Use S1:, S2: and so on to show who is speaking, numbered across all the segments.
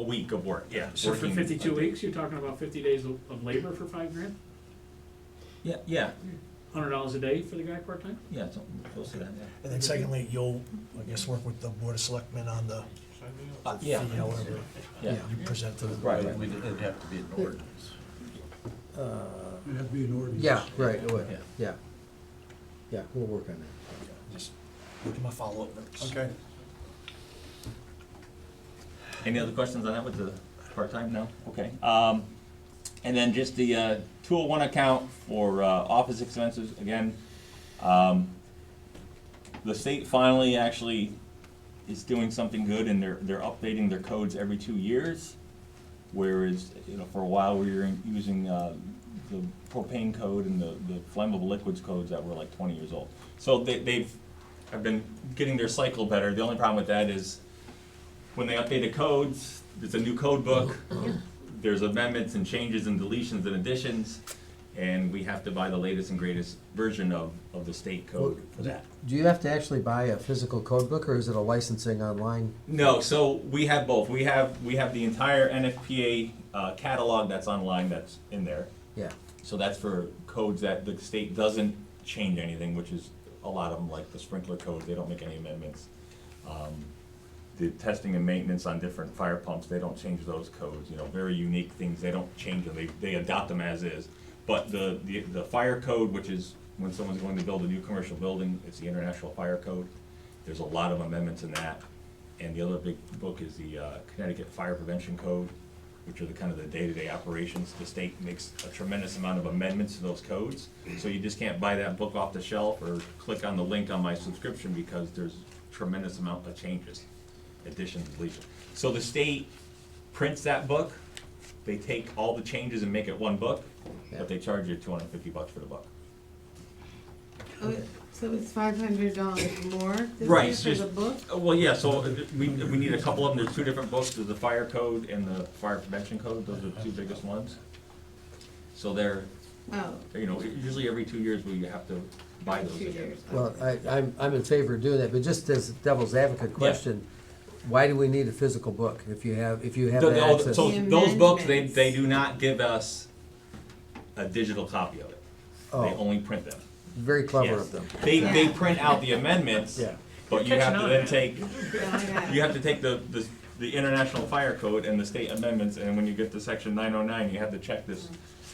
S1: week of work, yeah.
S2: So for
S1: working
S2: fifty-two
S1: a day.
S2: weeks, you're talking about fifty days of of labor for five grand?
S1: Yeah, yeah,
S2: Hundred dollars a day for the guy part-time?
S1: yeah, something close to that, yeah.
S3: And then secondly, you'll, I guess, work with the board of selectmen on the
S1: Uh, Yeah,
S3: fee, however
S1: yeah,
S3: you present to them.
S1: right, right.
S4: We'd- It'd have to be an ordinance.
S5: It'd have to be an ordinance.
S6: Yeah, right, it would,
S4: Yeah.
S6: yeah. Yeah, we'll work on that.
S3: Just Give them a follow-up notice.
S4: Okay.
S1: Any other questions on that with the part-time? No? Okay. Um, and then just the, uh, two oh one account for, uh, office expenses, again, um, the state finally actually is doing something good and they're, they're updating their codes every two years. Whereas, you know, for a while, we were using, uh, the propane code and the, the flammable liquids codes that were like twenty years old. So they, they've, have been getting their cycle better. The only problem with that is when they update the codes, there's a new code book, there's amendments and changes and deletions and additions, and we have to buy the latest and greatest version of, of the state code for that.
S6: Do you have to actually buy a physical code book, or is it a licensing online?
S1: No, so we have both. We have, we have the entire NFPA uh, catalog that's online that's in there.
S6: Yeah,
S1: So that's for codes that the state doesn't change anything, which is a lot of them, like the sprinkler codes, they don't make any amendments. Um, The testing and maintenance on different fire pumps, they don't change those codes, you know, very unique things, they don't change them, they, they adopt them as is. But the, the, the fire code, which is when someone's going to build a new commercial building, it's the International Fire Code. There's a lot of amendments in that. And the other big book is the uh, Connecticut Fire Prevention Code, which are the kind of the day-to-day operations. The state makes a tremendous amount of amendments to those codes. So you just can't buy that book off the shelf or click on the link on my subscription because there's tremendous amount of changes, additions, deletions. So the state prints that book, they take all the changes and make it one book,
S6: Yeah.
S1: but they charge you two hundred and fifty bucks for the book.
S7: Oh, it- So it's five hundred dollars more
S1: Right,
S7: this
S1: it's
S7: year for the
S1: just-
S7: book?
S1: Uh, Well, yeah, so uh, we, we need a couple of them, there's two different books, there's the fire code and the fire prevention code, those are the two biggest ones. So they're,
S7: Oh,
S1: you know, usually every two years we have to buy those
S7: two
S1: again.
S7: years.
S6: well, I, I'm, I'm in favor of doing that, but just as devil's advocate question, why do we need a physical book if you have, if you have
S1: The-
S6: the
S1: the- all the-
S6: access?
S1: So
S7: The
S1: those books, they,
S7: amendments.
S1: they do not give us a digital copy of it. They
S6: Oh.
S1: only print them.
S6: Very clever
S1: Yes.
S6: of them.
S1: They, they
S7: Yeah.
S1: print out the amendments,
S6: Yeah.
S1: but you
S2: You're
S1: have
S2: catching
S1: to
S2: on,
S1: then
S2: man.
S1: take,
S7: yeah, I got it.
S1: you have to take the, the, the international fire code and the state amendments, and when you get to section nine oh nine, you have to check this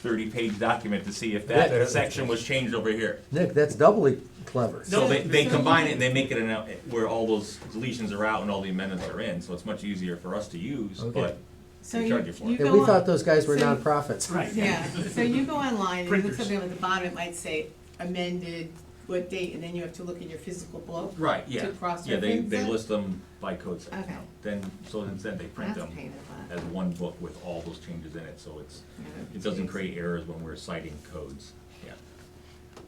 S1: thirty-page document to see if
S6: Yeah.
S1: that section was changed over here.
S6: Nick, that's doubly clever.
S1: So they, they
S7: No.
S1: combine it and they make it an, out- where all those deletions are out and all the amendments are in, so it's much easier for us to use,
S6: Okay.
S1: but
S7: So
S1: They
S7: you,
S1: charge you for
S7: you
S1: it.
S6: And
S7: go
S6: we
S7: on-
S6: thought those guys were
S7: so-
S6: nonprofits.
S2: Right.
S7: Yeah, so you go online and you look
S2: Printers.
S7: something on the bottom, it might say amended, what date, and then you have to look in your physical book.
S1: Right, yeah.
S7: To cross
S1: Yeah, they,
S7: reference
S1: they
S7: it?
S1: list them by code section.
S7: Okay.
S1: now. Then, so instead they print
S7: That's a
S1: them
S7: pain in the
S1: as
S7: butt.
S1: one book with all those changes in it, so it's,
S7: Yeah,
S1: it
S7: that's
S1: doesn't
S7: crazy.
S1: create errors when we're citing codes, yeah.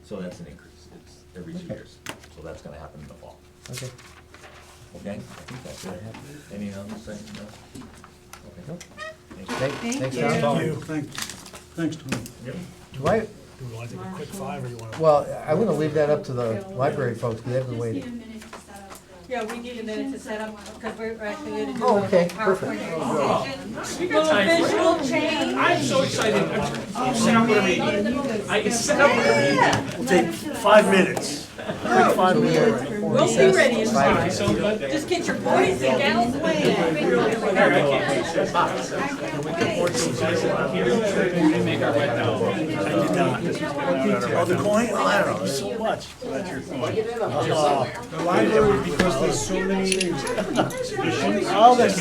S1: So that's an increase, it's every two
S6: Okay.
S1: years, so that's gonna happen in the fall,
S6: Okay.
S1: okay? I think that's it. Any other thing, no?
S6: Nope.
S1: Okay.
S6: Thank-
S7: Thank
S6: thanks,
S7: you.
S6: Tom.
S3: you.
S5: Thanks, thanks, Tony.
S1: Yep.
S6: Do I,
S3: Do we want to take a quick five, or you want to?
S6: well, I'm gonna leave that up to the library folks, 'cause they've been
S8: Just need
S6: waiting.
S8: a minute to set up the.
S9: Yeah, we need a minute to set up, because we're actually gonna do
S6: Oh,
S9: a
S6: okay,
S9: PowerPoint
S6: perfect.
S9: presentation.
S2: We got time for it.
S9: Visual change.
S2: I'm so excited, I'm,
S7: Oh,
S2: you set up whatever you need. I can set up whatever you need.
S3: We'll take five minutes. Quick five
S6: So we are-
S3: minutes.
S9: We'll be ready in
S6: Five
S9: time.
S2: So, but
S9: Just get your boys and gals away.
S3: Oh, the coin, oh, I don't know, there's so much.
S6: Get in on this.
S3: The library, because there's so many. All this